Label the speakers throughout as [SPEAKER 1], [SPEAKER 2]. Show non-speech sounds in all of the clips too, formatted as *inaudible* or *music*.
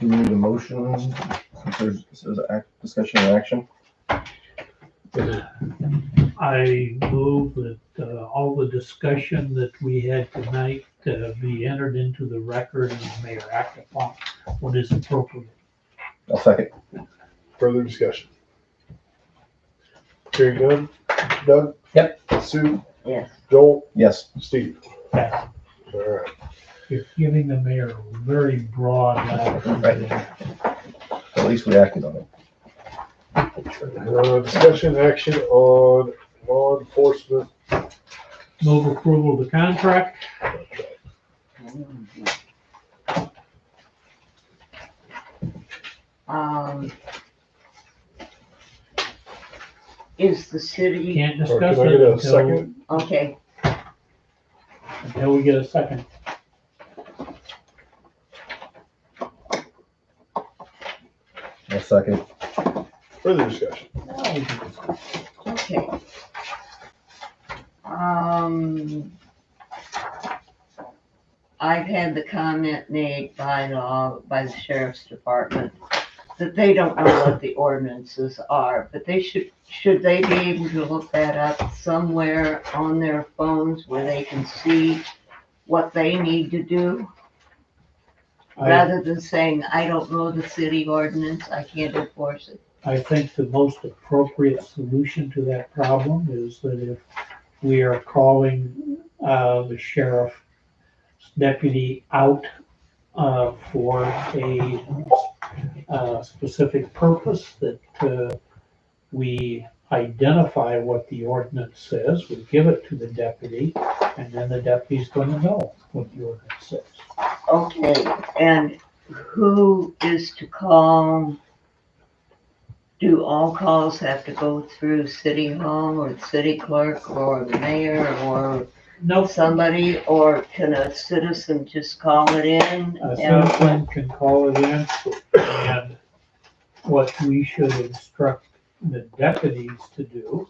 [SPEAKER 1] Do we need a motion since there's, this is act, discussion and action?
[SPEAKER 2] I move that uh, all the discussion that we had tonight uh, be entered into the record and may act upon what is appropriate.
[SPEAKER 1] I'll second.
[SPEAKER 3] Further discussion? Hearing none. Doug?
[SPEAKER 1] Yep.
[SPEAKER 3] Sue?
[SPEAKER 4] Yes.
[SPEAKER 3] Joel?
[SPEAKER 1] Yes,
[SPEAKER 3] Steve?
[SPEAKER 2] That
[SPEAKER 3] All right.
[SPEAKER 2] You're giving the mayor a very broad. latitude there.
[SPEAKER 1] at least we acted on it.
[SPEAKER 3] Uh, discussion action on law enforcement.
[SPEAKER 2] Move approval of the contract.
[SPEAKER 4] Um. Is the city,
[SPEAKER 2] Can't
[SPEAKER 3] Or
[SPEAKER 2] discuss
[SPEAKER 3] can I get
[SPEAKER 2] it
[SPEAKER 3] a
[SPEAKER 2] until,
[SPEAKER 3] second?
[SPEAKER 4] okay,
[SPEAKER 2] until we get a second.
[SPEAKER 1] I'll second.
[SPEAKER 3] Further discussion?
[SPEAKER 2] Now we can discuss.
[SPEAKER 4] okay. Um. I've had the comment made by the, by the sheriff's department that they don't know what the ordinances are, but they should, should they be able to look that up somewhere on their phones where they can see what they need to do?
[SPEAKER 2] I,
[SPEAKER 4] rather than saying, I don't know the city ordinance, I can't enforce it.
[SPEAKER 2] I think the most appropriate solution to that problem is that if we are calling, uh, the sheriff's deputy out, uh, for a, uh, specific purpose that, uh, we identify what the ordinance says, we give it to the deputy, and then the deputy's gonna know what the ordinance says.
[SPEAKER 4] Okay, and who is to call? Do all calls have to go through city hall or the city clerk or the mayor or
[SPEAKER 2] No,
[SPEAKER 4] somebody? Or can a citizen just call it in?
[SPEAKER 2] A
[SPEAKER 4] and-
[SPEAKER 2] citizen can call it in, and what we should instruct the deputies to do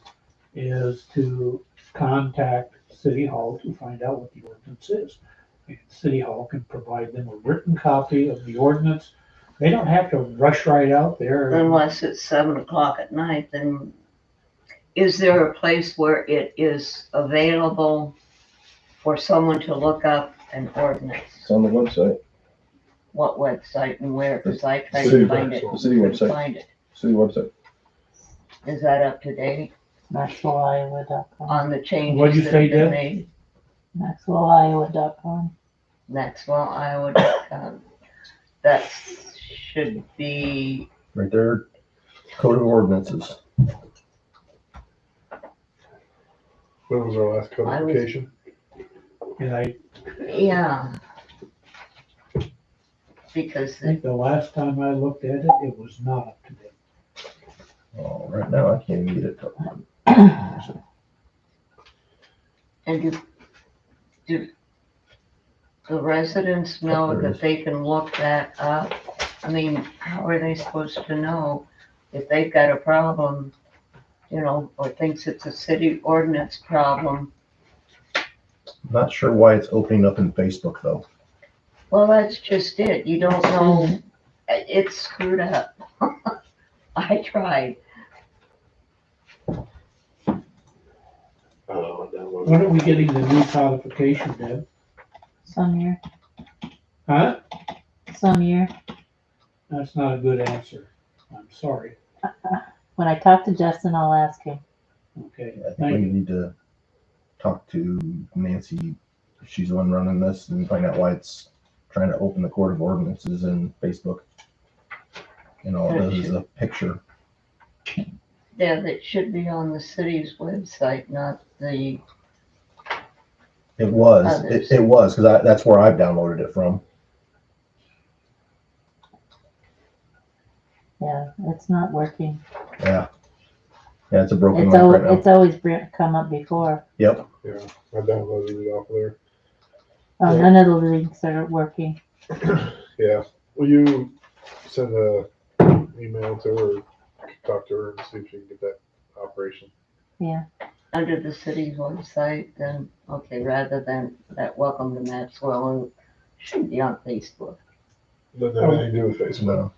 [SPEAKER 2] is to contact City Hall to find out what the ordinance is. And City Hall can provide them a written copy of the ordinance. They don't have to rush right out there.
[SPEAKER 4] Unless it's seven o'clock at night, then is there a place where it is available for someone to look up an ordinance?
[SPEAKER 1] It's on the website,
[SPEAKER 4] what website and where, because I tried
[SPEAKER 1] City
[SPEAKER 4] to find it.
[SPEAKER 3] website.
[SPEAKER 1] City
[SPEAKER 4] couldn't
[SPEAKER 1] website.
[SPEAKER 4] Find it.
[SPEAKER 1] city website.
[SPEAKER 4] Is that up to date
[SPEAKER 5] MaxwellIowa.com.
[SPEAKER 4] on the changes?
[SPEAKER 2] What'd you
[SPEAKER 4] that
[SPEAKER 2] say,
[SPEAKER 4] have been
[SPEAKER 2] Deb?
[SPEAKER 4] made?
[SPEAKER 5] MaxwellIowa.com.
[SPEAKER 4] MaxwellIowa.com. um, That should be,
[SPEAKER 1] Right there, code of ordinances.
[SPEAKER 3] When was our last codification?
[SPEAKER 2] And I
[SPEAKER 4] yeah. Because it-
[SPEAKER 2] think the last time I looked at it, it was not up to date.
[SPEAKER 1] Oh, right now, I can't even get it.
[SPEAKER 4] And do, do the residents know that they can look that up? I mean, how are they supposed to know if they've got a problem, you know, or thinks it's a city ordinance problem?
[SPEAKER 1] Not sure why it's opening up in Facebook, though.
[SPEAKER 4] Well, that's just it. You don't know. I- It's screwed up. *laughs* I tried.
[SPEAKER 3] Oh, that was-
[SPEAKER 2] When are we getting the new codification, Deb?
[SPEAKER 5] Some year,
[SPEAKER 2] Huh?
[SPEAKER 5] some year.
[SPEAKER 2] That's not a good answer. I'm sorry.
[SPEAKER 5] When I talk to Justin, I'll ask him.
[SPEAKER 2] Okay,
[SPEAKER 1] I think
[SPEAKER 2] thank
[SPEAKER 1] we
[SPEAKER 2] you.
[SPEAKER 1] need to talk to Nancy, she's the one running this, and find out why it's trying to open the court of ordinances in Facebook. And all it does is a picture.
[SPEAKER 4] Yeah, that should be on the city's website, not the,
[SPEAKER 1] It was, it, it was, because I, that's where I've downloaded it from.
[SPEAKER 5] Yeah, it's not working.
[SPEAKER 1] Yeah. Yeah, it's a broken
[SPEAKER 5] It's
[SPEAKER 1] link right
[SPEAKER 5] al-
[SPEAKER 1] now.
[SPEAKER 5] it's always br- come up before.
[SPEAKER 1] Yep.
[SPEAKER 3] Yeah, I downloaded it off of there.
[SPEAKER 5] Oh,
[SPEAKER 3] Yeah.
[SPEAKER 5] none of the links are working.
[SPEAKER 3] Yeah. Will you send a email to her, talk to her and see if she can get that operation?
[SPEAKER 4] under the city's website, then, okay, rather than that welcome to Maxwell, it should be on Facebook.
[SPEAKER 3] doesn't have anything to do with
[SPEAKER 1] It's
[SPEAKER 3] Facebook.
[SPEAKER 1] no.